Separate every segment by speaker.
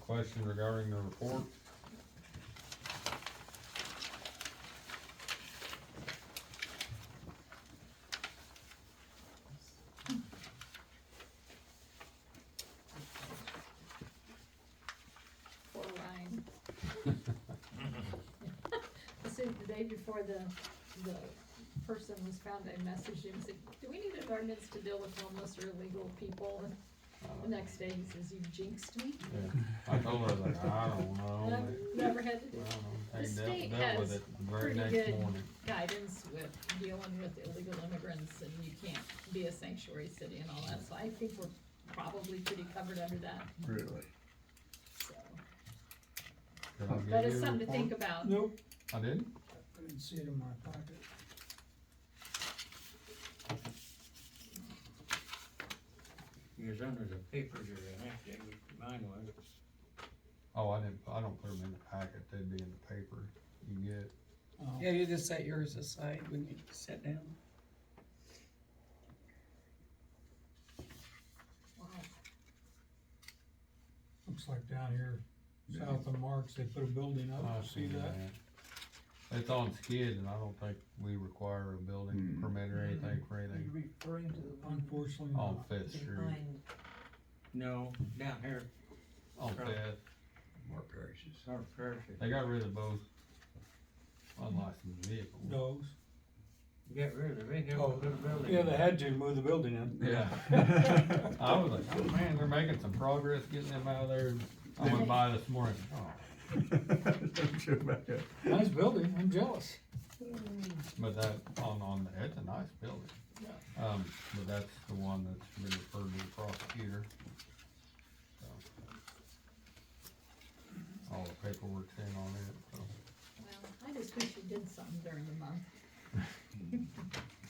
Speaker 1: question regarding the report?
Speaker 2: Poor Ryan. This is the day before the, the person was found, I messaged him, and said, do we need an ordinance to deal with homeless or illegal people? And the next day he says, you jinxed me.
Speaker 1: Yeah. I told her, I was like, I don't know.
Speaker 2: I've never had
Speaker 1: I don't know.
Speaker 2: The
Speaker 1: Hey, dealt-
Speaker 2: state
Speaker 1: dealt with
Speaker 2: has
Speaker 1: it the very
Speaker 2: pretty
Speaker 1: next
Speaker 2: good-
Speaker 1: morning.
Speaker 2: guidance with dealing with illegal immigrants and you can't be a sanctuary city and all that, so I think we're probably pretty covered under that,
Speaker 3: Really?
Speaker 2: so.
Speaker 1: Did I give
Speaker 2: But
Speaker 1: you
Speaker 2: it's
Speaker 1: a
Speaker 2: something to think
Speaker 1: report?
Speaker 2: about.
Speaker 4: Nope,
Speaker 1: I didn't?
Speaker 4: I didn't see it in my pocket.
Speaker 5: Yours under the papers you're in, actually, mine was.
Speaker 1: Oh, I didn't, I don't put them in the packet, they'd be in the paper you get.
Speaker 4: Oh.
Speaker 6: Yeah, you just set yours aside when you sit down.
Speaker 2: Wow.
Speaker 4: Looks like down here, south of Marks, they put a building
Speaker 1: I
Speaker 4: up, see
Speaker 1: seen
Speaker 4: that?
Speaker 1: It's on skid and I don't think we require a building
Speaker 3: Hmm.
Speaker 1: permit or anything for
Speaker 7: Are you
Speaker 1: anything
Speaker 7: referring to the one
Speaker 4: Unfortunately
Speaker 1: on
Speaker 4: not.
Speaker 1: Fifth Street,
Speaker 7: behind
Speaker 5: No, down here,
Speaker 1: on Fifth.
Speaker 3: More parishes.
Speaker 5: it's our parish.
Speaker 1: They got rid of both unlicensed vehicles.
Speaker 4: Those.
Speaker 5: Get rid of it, they never
Speaker 4: Oh,
Speaker 5: put a building.
Speaker 4: Yeah,
Speaker 5: in
Speaker 4: they
Speaker 5: it.
Speaker 4: had to move the building in.
Speaker 1: Yeah. I was like, oh man, they're making some progress getting them out of there. I went by this morning, oh,
Speaker 3: Don't you about that?
Speaker 4: Nice building, I'm jealous.
Speaker 1: but that, on, on, the- it's a nice building. Um, but that's the one that's been referred to the prosecutor. So. All the paperwork's in on it, so,
Speaker 2: Well, I just wish you did something during the month.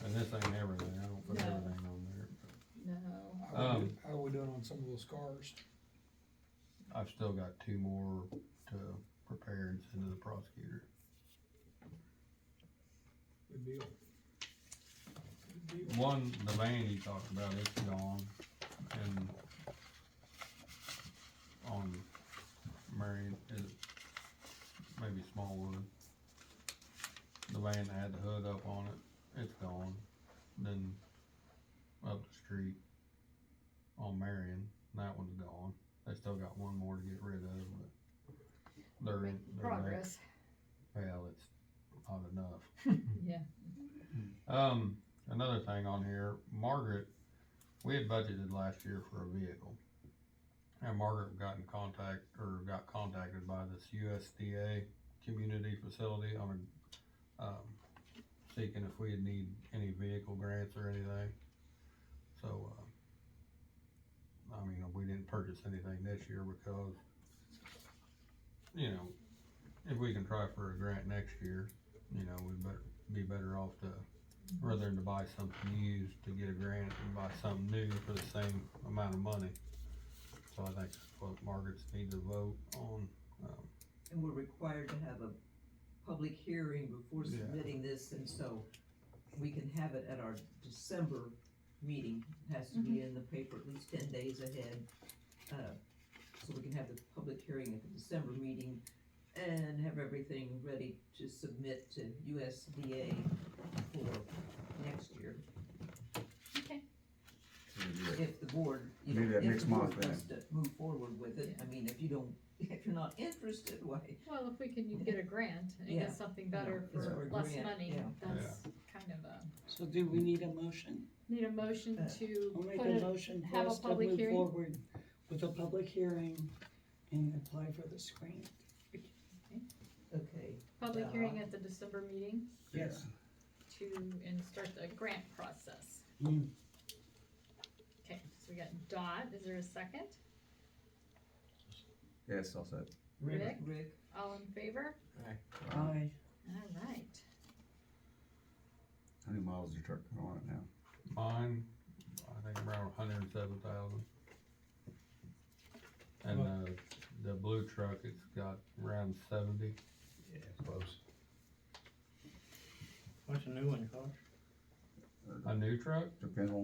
Speaker 1: and this ain't everything, I don't put
Speaker 2: No.
Speaker 1: everything on there.
Speaker 2: No.
Speaker 4: How we
Speaker 1: Um,
Speaker 4: do- how we doing on some of those cars?
Speaker 1: I've still got two more to prepare and send to the prosecutor.
Speaker 4: Good deal. Good deal.
Speaker 1: One, the van he talked about, it's gone, and on Marion, is it maybe Smallwood? The van that had the hood up on it, it's gone, then up the street on Marion, that one's gone, they still got one more to get rid of, but they're in,
Speaker 2: Making
Speaker 1: they're there.
Speaker 2: Progress,
Speaker 1: Well, it's not enough.
Speaker 2: yeah.
Speaker 1: Um, another thing on here, Margaret, we had budgeted last year for a vehicle. And Margaret got in contact, or got contacted by this USDA community facility on a, um, seeking if we'd need any vehicle grants or anything. So, uh, I mean, we didn't purchase anything this year because, you know, if we can try for a grant next year, you know, we'd better, be better off to rather than to buy something used to get a grant and buy something new for the same amount of money. So I think that's what Margaret's need to vote on, um,
Speaker 7: And we're required to have a public hearing before
Speaker 1: Yeah.
Speaker 7: submitting this, and so we can have it at our December meeting. It Has to
Speaker 2: Mm-hmm.
Speaker 7: be in the paper at least ten days ahead. uh, So we can have the public hearing at the December meeting and have everything ready to submit to USDA for next year.
Speaker 2: Okay,
Speaker 7: If the board, you
Speaker 3: Maybe
Speaker 7: know,
Speaker 3: that
Speaker 7: if
Speaker 3: next
Speaker 7: the board
Speaker 3: month then.
Speaker 7: wants to move forward with it, I mean, if you don't, if you're not interested, why?
Speaker 2: well, if we can get a grant and
Speaker 7: Yeah.
Speaker 2: get something better
Speaker 7: it's
Speaker 2: for
Speaker 7: for
Speaker 2: less
Speaker 7: grant,
Speaker 2: money,
Speaker 7: yeah.
Speaker 2: that's kind of a,
Speaker 6: So do we need a motion?
Speaker 2: need a motion
Speaker 7: Uh,
Speaker 6: I'll
Speaker 2: to
Speaker 6: make
Speaker 2: put
Speaker 6: a
Speaker 2: it,
Speaker 6: motion
Speaker 2: have
Speaker 6: for
Speaker 2: a
Speaker 6: us to
Speaker 2: public
Speaker 6: move
Speaker 2: hearing?
Speaker 6: forward with a public hearing and apply for this grant.
Speaker 7: Okay,
Speaker 2: public
Speaker 7: uh,
Speaker 2: hearing at the December meeting
Speaker 6: Yes.
Speaker 2: to, and start the grant process.
Speaker 6: Mm.
Speaker 2: Okay, so we got Dot, is there a second?
Speaker 3: Yes, I'll say.
Speaker 2: Rick,
Speaker 7: Rick?
Speaker 2: all in favor?
Speaker 6: Aye.
Speaker 2: All right.
Speaker 3: How many miles is your truck going on it now?
Speaker 1: mine, I think around hundred and seven thousand. And, uh, the blue truck, it's got around seventy,
Speaker 3: Yeah, close.
Speaker 5: What's the new one called?
Speaker 1: a new truck?
Speaker 3: Depends on